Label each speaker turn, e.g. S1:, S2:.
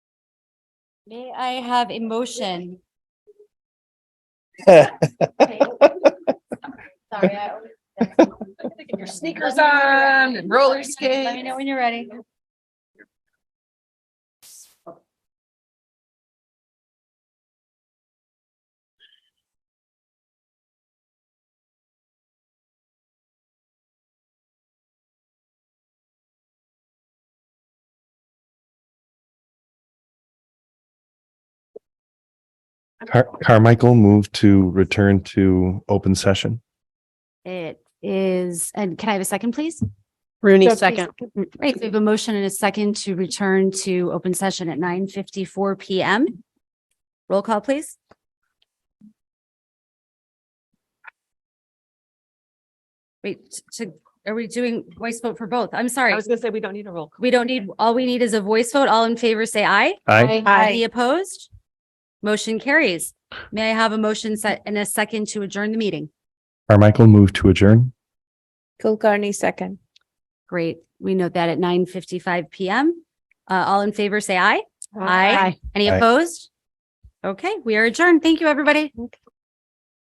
S1: May I have a motion? Sorry, I always-
S2: Get your sneakers on and roller
S1: Let me know
S2: skates.
S1: when you're ready.
S3: Car- Carmichael moved to return to open session.
S1: It is, and can I have a second, please?
S4: Rooney,
S1: Doug, please.
S4: second.
S1: Right, we have a motion and a second to return to open session at nine fifty-four PM. Roll call, please. Wait, to, are we doing voice vote for both? I'm
S2: I
S1: sorry.
S2: was gonna say, we don't need a roll. call.
S1: We don't need, all we need is a voice vote. All in favor, say aye.
S3: Aye.
S1: Any opposed? Motion carries. May I have a motion set and a second to adjourn the meeting?
S3: Carmichael moved to adjourn.
S4: Kulkarni, second.
S1: Great. We note that at nine fifty-five PM. Uh, all in favor, say aye. Any
S3: Aye.
S1: opposed? Okay, we are adjourned. Thank you, everybody.